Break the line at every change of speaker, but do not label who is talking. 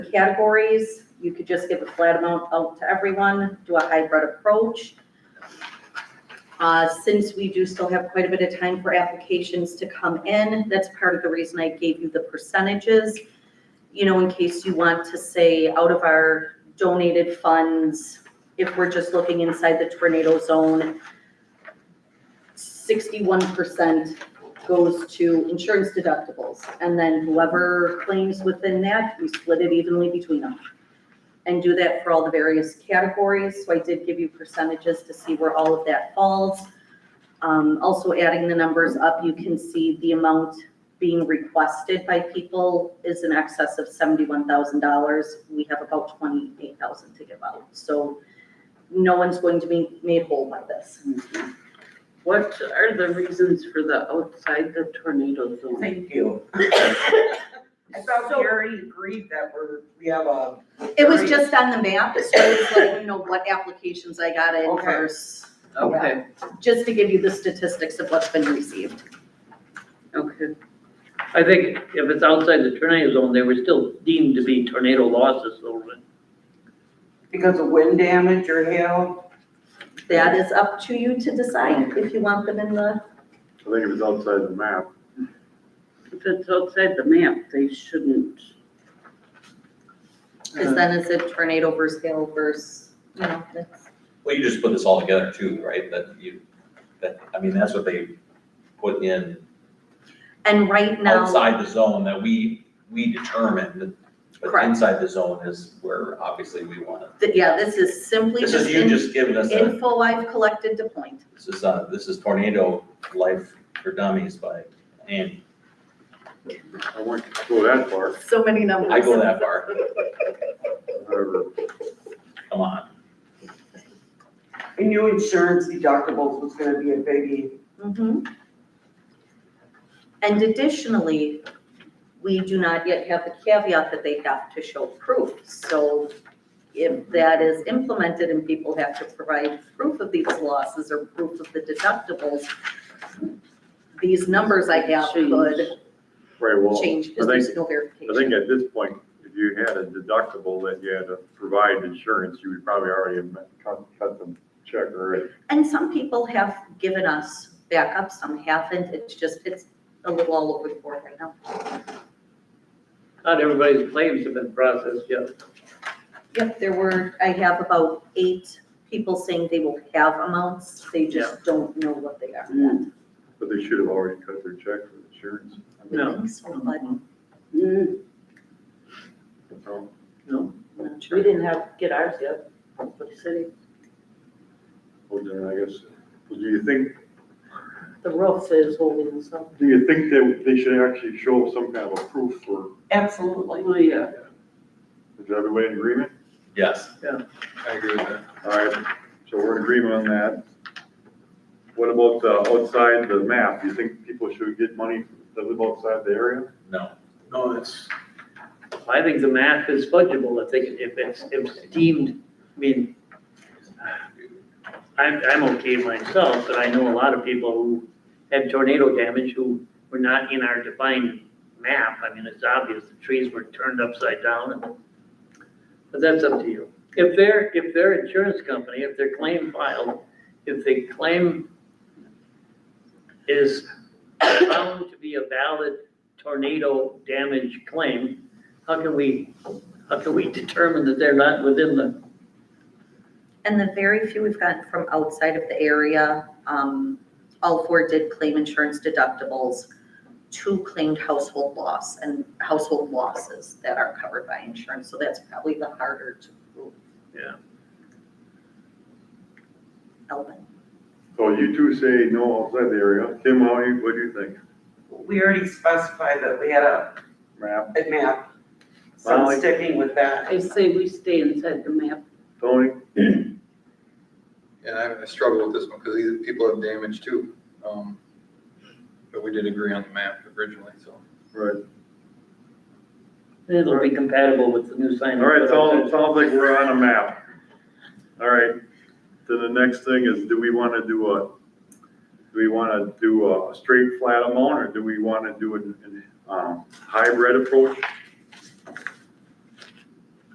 categories. You could just give a flat amount out to everyone, do a hybrid approach. Uh, Since we do still have quite a bit of time for applications to come in, that's part of the reason I gave you the percentages. You know, in case you want to say out of our donated funds, if we're just looking inside the tornado zone, sixty-one percent goes to insurance deductibles. And then whoever claims within that, we split it evenly between them. And do that for all the various categories. So I did give you percentages to see where all of that falls. Um, also adding the numbers up, you can see the amount being requested by people is in excess of seventy-one thousand dollars. We have about twenty-eight thousand to give out. So no one's going to be made whole by this.
What are the reasons for the outside the tornado zone?
Thank you. I thought we already agreed that we're, we have a.
It was just on the map, so it's like, you know, what applications I got in
Okay.
first,
Okay,
just to give you the statistics of what's been received.
okay.
I think if it's outside the tornado zone, they were still deemed to be tornado losses, though.
Because of wind damage or hail?
That is up to you to decide if you want them in the,
I think it was outside the map.
If it's outside the map, they shouldn't.
because then it's a tornado versus hail versus, you know, that's.
Well, you just put this all together too, right? That you, that, I mean, that's what they put in
And right now,
outside the zone that we, we determined. But
Correct.
inside the zone is where obviously we want to.
th- yeah, this is simply
This
just
is you
in-
just giving us a,
info I've collected to point.
this is, uh, this is tornado life for dummies by Andy.
I went to go that far,
So many numbers.
I go that far,
however,
come on.
I knew insurance deductibles was gonna be a biggie.
Mhm. And additionally, we do not yet have the caveat that they have to show proof. So if that is implemented and people have to provide proof of these losses or proof of the deductibles, these numbers I have could
very well.
change
I
because
think,
there's no
I think
verification.
at this point, if you had a deductible that you had to provide insurance, you would probably already have met- cut, cut them check already.
And some people have given us backup, some haven't. It's just, it's a little all over the board right now.
Not everybody's claims have been processed yet.
Yep, there were, I have about eight people saying they will have amounts, they just don't know what they are yet.
But they should have already cut their check for insurance. I mean,
No.
I think so, but I'm
Mm,
so,
not
We
sure.
didn't have, get ours yet, for the city,
Well, then I guess, well, do you think,
the roof is holding us up.
do you think that they should actually show some kind of a proof for,
Absolutely.
Oh, yeah.
is everybody in agreement?
Yes.
Yeah.
I agree with that.
All right, so we're in agreement on that. What about uh, outside the map? You think people should get money that live outside the area?
No,
Oh,
No, that's,
I think the map is fungible, I think if it's, if it's deemed, I mean, I'm, I'm okay myself, but I know a lot of people who had tornado damage who were not in our defined map. I mean, it's obvious, the trees were turned upside down, and- but that's up to you. If their, if their insurance company, if their claim filed, if the claim is found to be a valid tornado damage claim, how can we, how can we determine that they're not within the,
And the very few we've gotten from outside of the area, um, all four did claim insurance deductibles. Two claimed household loss and household losses that are covered by insurance, so that's probably the harder to prove.
Yeah.
Element.
So you two say no outside the area. Tim, how you, what do you think?
We already specified that we had a,
Map,
a map, so I'm
Molly?
sticking with that.
I say we stay inside the map.
Tony?
And I I struggle with this one because these people have damage too. Um, But we did agree on the map originally, so.
Right.
it'll be compatible with the new sign.
All right, sounds, sounds like we're on a map. All right, then the next thing is, do we want to do a, do we want to do a straight flat amount or do we want to do an, an, um, hybrid approach?